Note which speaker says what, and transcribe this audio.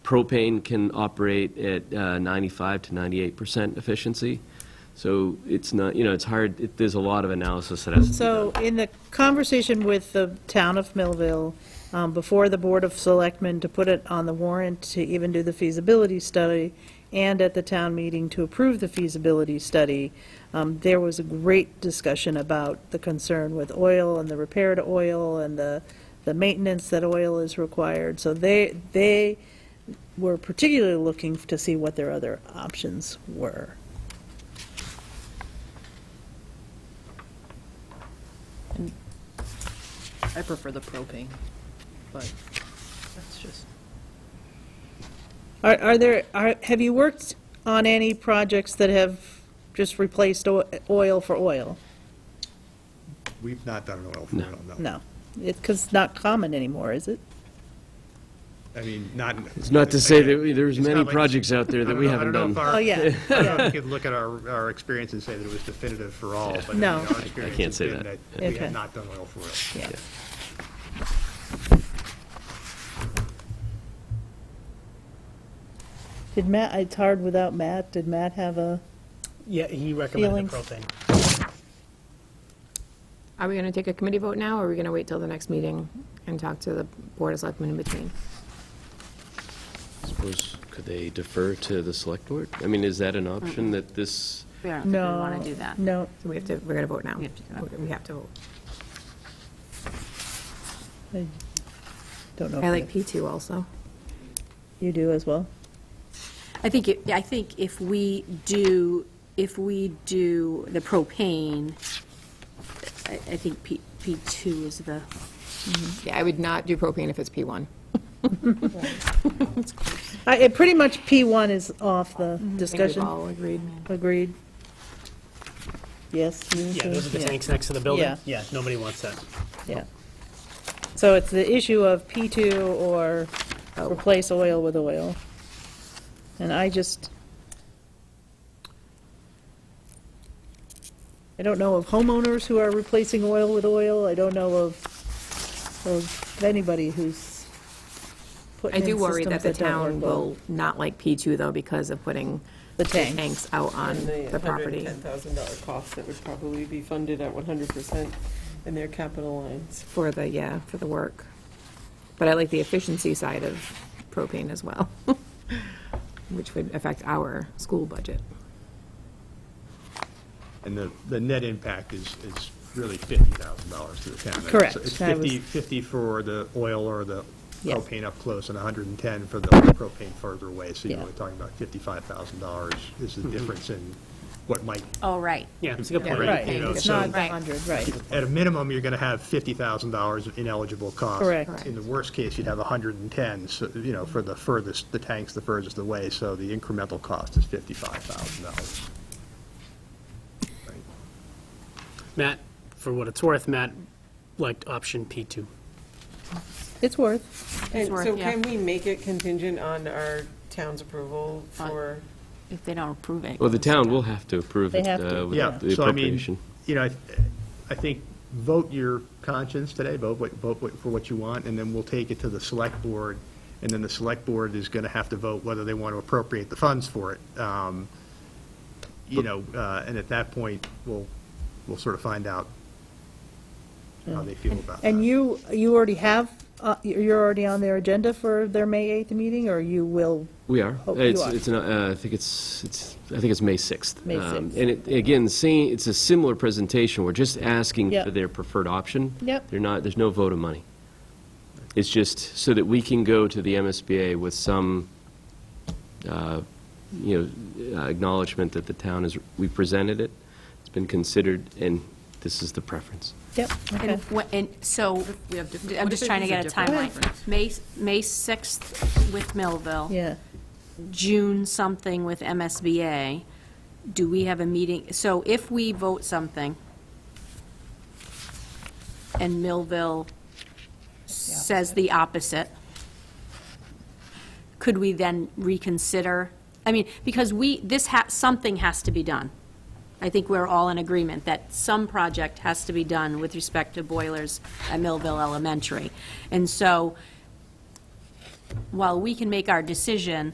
Speaker 1: propane can operate at uh, 95 to 98 percent efficiency, so it's not, you know, it's hard, it- there's a lot of analysis that has to be done.
Speaker 2: So in the conversation with the town of Millville, um, before the Board of Selectmen to put it on the warrant to even do the feasibility study, and at the town meeting to approve the feasibility study, um, there was a great discussion about the concern with oil and the repair to oil and the, the maintenance that oil is required. So they, they were particularly looking to see what their other options were.
Speaker 3: I prefer the propane, but that's just.
Speaker 2: Are, are there, are, have you worked on any projects that have just replaced o- oil for oil?
Speaker 4: We've not done an oil field, no.
Speaker 2: No. It's, because it's not common anymore, is it?
Speaker 4: I mean, not.
Speaker 1: It's not to say that we- there's
Speaker 4: It's not
Speaker 1: many
Speaker 4: like-
Speaker 1: projects out there
Speaker 4: I
Speaker 1: that
Speaker 4: don't
Speaker 1: we
Speaker 4: know- I
Speaker 1: haven't
Speaker 4: don't know
Speaker 1: done.
Speaker 4: if our-
Speaker 2: Oh, yeah,
Speaker 4: I don't know if you could look at our, our experience and say that it was definitive for all, but I mean,
Speaker 2: No.
Speaker 4: our
Speaker 2: I- I
Speaker 4: experience
Speaker 1: can't
Speaker 4: has
Speaker 1: say
Speaker 4: been
Speaker 1: that.
Speaker 4: that we
Speaker 2: Okay.
Speaker 4: have not done oil field.
Speaker 2: yeah. Did Matt, it's hard without Matt, did Matt have a,
Speaker 5: Yeah, he recommended the
Speaker 2: Feelings?
Speaker 5: propane.
Speaker 6: Are we going to take a committee vote now, or are we going to wait till the next meeting and talk to the Board of Selectmen in between?
Speaker 1: I Suppose, could they defer to the select board? I mean, is that an option that this,
Speaker 7: We don't think we
Speaker 2: no?
Speaker 7: want to do that.
Speaker 2: No,
Speaker 6: So we have to, we're going to vote now?
Speaker 7: We have to do that.
Speaker 6: We have to vote.
Speaker 2: I don't know.
Speaker 6: I
Speaker 2: if
Speaker 6: like P2 also.
Speaker 2: You do as well?
Speaker 7: I think, it- I think if we do, if we do the propane, I I think P- P2 is the,
Speaker 6: Yeah, I would not do propane if it's P1.
Speaker 2: I, it, pretty much P1 is off the
Speaker 6: I think we've
Speaker 2: discussion.
Speaker 6: all agreed.
Speaker 2: Agreed? Yes? you
Speaker 5: Yeah,
Speaker 2: too?
Speaker 5: those are the tanks next to the building.
Speaker 2: Yeah.
Speaker 5: Yeah, nobody wants that.
Speaker 2: Yeah. So it's the issue of P2 or
Speaker 6: Oh.
Speaker 2: replace oil with oil. And I just, I don't know of homeowners who are replacing oil with oil. I don't know of, of anybody who's
Speaker 6: I
Speaker 2: putting in
Speaker 6: do worry
Speaker 2: systems
Speaker 6: that the
Speaker 2: that
Speaker 6: town
Speaker 2: don't work well.
Speaker 6: will not like P2, though, because of putting
Speaker 2: The
Speaker 6: the
Speaker 2: tanks.
Speaker 6: tanks out on the property.
Speaker 8: $110,000 cost that would probably be funded at 100% in their capital lines.
Speaker 6: For the, yeah, for the work. But I like the efficiency side of propane as well, which would affect our school budget.
Speaker 4: And the, the net impact is, is really fifty thousand dollars to the town.
Speaker 2: Correct.
Speaker 4: It's
Speaker 2: I was-
Speaker 4: fifty, fifty for the oil or the
Speaker 2: Yeah.
Speaker 4: propane up close and hundred and ten for the propane further away. So you're
Speaker 2: Yeah.
Speaker 4: only talking about fifty-five thousand dollars is
Speaker 1: Mm-hmm.
Speaker 4: the difference in what might,
Speaker 7: oh, right.
Speaker 5: Yeah, it's a good point.
Speaker 2: Right,
Speaker 4: you know,
Speaker 2: it's
Speaker 4: so-
Speaker 2: not the
Speaker 7: Right.
Speaker 2: 100, right,
Speaker 4: at a minimum, you're going to have fifty thousand dollars of ineligible costs.
Speaker 2: Correct.
Speaker 4: In the worst case, you'd have a hundred and ten, so, you know, for the furthest, the tanks the furthest away. So the incremental cost is fifty-five thousand dollars.
Speaker 5: Matt, for what it's worth, Matt liked option P2.
Speaker 2: it's worth.
Speaker 8: And
Speaker 7: worth,
Speaker 8: so
Speaker 7: yeah.
Speaker 8: can we make it contingent on our town's approval
Speaker 7: On-
Speaker 8: for?
Speaker 7: If they don't approve it.
Speaker 1: well, the town will have to approve
Speaker 2: They
Speaker 1: it
Speaker 2: have to,
Speaker 1: uh, with
Speaker 4: Yeah,
Speaker 1: the
Speaker 4: so I mean,
Speaker 1: appropriation.
Speaker 4: you know, I, I think, vote your conscience today, vote, what- vote what- for what you want, and then we'll take it to the select board, and then the select board is going to have to vote whether they want to appropriate the funds for it. Um, You know, uh, and at that point, we'll, we'll sort of find out how they feel about that.
Speaker 2: And you, you already have, uh, you're already on their agenda for their May 8th meeting, or you will
Speaker 1: We are.
Speaker 2: Oh, you
Speaker 1: It's,
Speaker 2: are.
Speaker 1: it's, an- uh, I think it's, it's, I think it's May 6th.
Speaker 2: May
Speaker 1: Um,
Speaker 2: 6th.
Speaker 1: And it, again, same, it's a similar presentation, we're just asking
Speaker 2: Yep.
Speaker 1: for their preferred option.
Speaker 2: Yep.
Speaker 1: They're not, there's no vote of money. It's just so that we can go to the MSBA with some, uh, you know, uh, acknowledgement that the town is, we presented it, it's been considered, and this is the preference.
Speaker 2: Yep,
Speaker 7: And
Speaker 2: okay.
Speaker 7: what- And so, I'm just trying to get a timeline. May, May 6th with Millville.
Speaker 2: Yeah,
Speaker 7: June something with MSBA, do we have a meeting? So if we vote something, and Millville says the opposite, could we then reconsider? I mean, because we, this ha, something has to be done. I think we're all in agreement that some project has to be done with respect to boilers at Millville Elementary. And so while we can make our decision,